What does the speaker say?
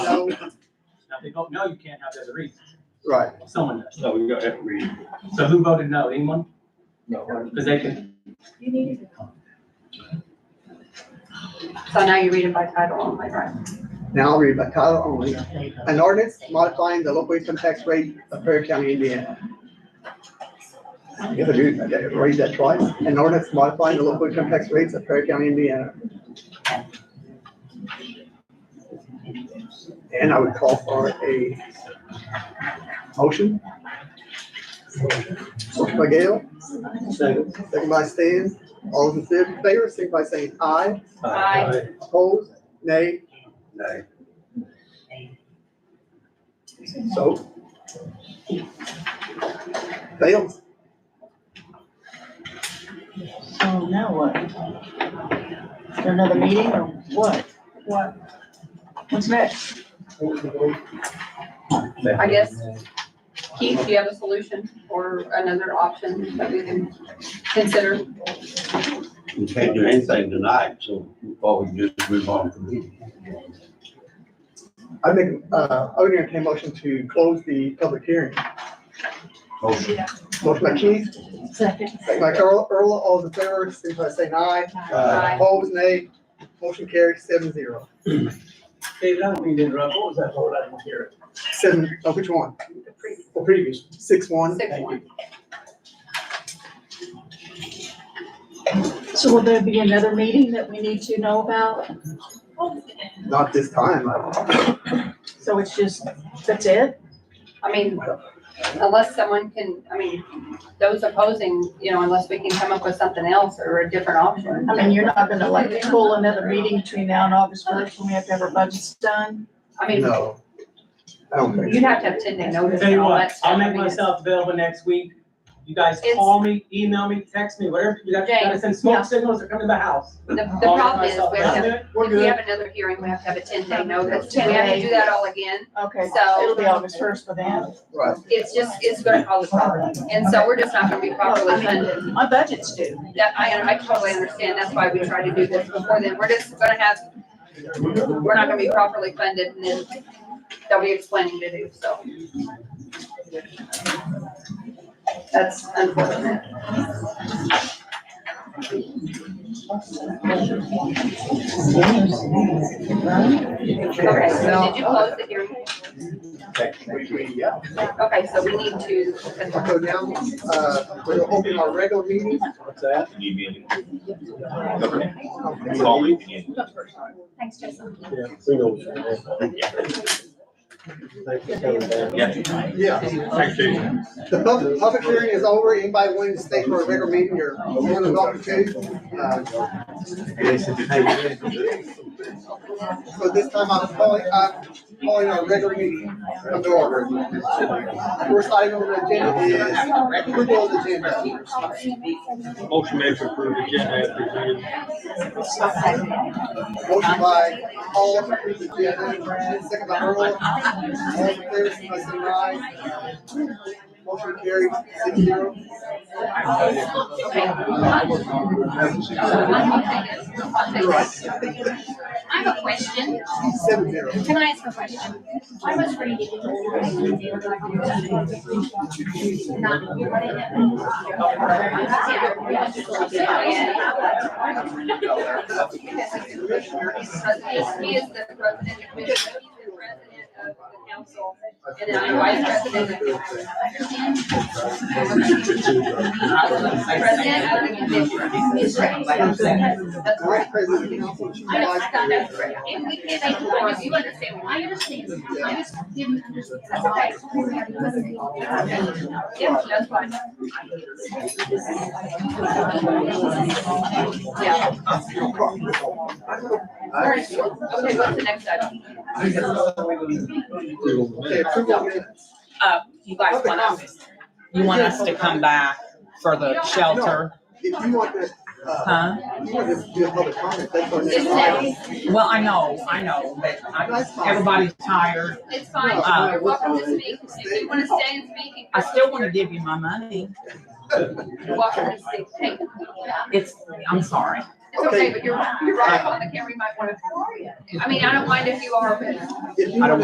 Now, if they vote no, you can't have that as a reason. Right. Someone does. No, we got to read. So who voted no? Anyone? No. Because they can, You need to. So now you read it by title only, right? Now I'll read by title only. An ordinance modifying the local income tax rate of Perry County, Indiana. You have to do, I gotta read that twice. An ordinance modifying the local income tax rates of Perry County, Indiana. And I would call for a motion. Motion by Gail, Second. second by Stan. All those in favor, signify by saying aye. Uh, Aye. Opposed? Nay. Nay. So. Fails. So now what? Is there another meeting or what? What? What's next? I guess, Keith, do you have a solution or another option that we can consider? We can't do anything tonight, so we probably just move on from here. I make, uh, I would entertain a motion to close the public hearing. Motion. Motion by Keith, Second. second by Earl, Earl, all in favor, signify by saying aye. uh, Aye. Opposed, nay. Motion carries seven zero. David, I don't mean to interrupt. What was that whole item here? Seven, oh, which one? The previous. Six one. Six one. So will there be another meeting that we need to know about? Not this time. I- So it's just, that's it? I mean, unless someone can, I mean, those opposing, you know, unless we can come up with something else or a different option. I mean, you're not gonna like pull another meeting between now and August first when we have to have our budgets done? I mean, No. I don't think. you'd have to have ten day notice tell and you all that what, stuff. I'll I make mean, it's- myself available next week. You guys It's- call me, email me, text me, whatever. You got- you gotta send Yeah. smoke signals or come to my house. The, the I'll make problem is, myself we have to, available. We're if we good. have another hearing, we have to have a ten day notice. We have to do that all again. Okay, So- so it'll be August first for them. Right. It's just, it's gonna cause a problem. And so we're just not gonna be properly funded. My budget's due. That, I, I totally understand, that's why we try to do this before then, we're just gonna have, we're not gonna be properly funded, and then they'll be explaining to do, so. That's unfortunate. Okay, so did you close the hearing? Okay, so we need So to, now, uh, we're opening our regular meeting. What's that? Okay. Okay. It's all we can do. thanks, Jason. Yeah, we know. what you're doing. Thank you for coming down. Yeah. Yeah. Thanks, Jason. The public, public hearing is over. Anybody wanting to stay for a regular meeting or one of the opportunities? So this time I'm calling, I'm calling our regular meeting of the order. First item on the agenda is approval of the agenda. Motion made to approve agenda as presented. Motion by Paul to approve the agenda, second by Earl. All in favor, signify by saying aye. Motion carries six zero. I have a question. Seven zero. Can I ask a question? I was reading. He is the president, he's the president of the council, and I'm vice president of the council. President of the commission. He's right. That's right. Vice President of the Council, Chief I know, I Vice thought President. that's right. And we can't make laws, you understand, I understand, I just didn't understand. That's okay. Yeah, that's fine. Yeah. All right, okay, what's the next item? Okay, approval of minutes. Uh, you guys Public want us, you want us to come back for the shelter, If you want this, uh, huh? if you want this to be a public comment, that's on It's this. next. Well, I know, I know, but I'm, That's fine. everybody's tired. It's fine, Uh, you're welcome to speak, if you wanna stay and speak, you I still wanna give you my money. you're welcome to speak, Hey, It's, I'm sorry. It's okay, but you're, you're right, on the camera, you might wanna, I mean, I don't mind if you are, but. If you I don't want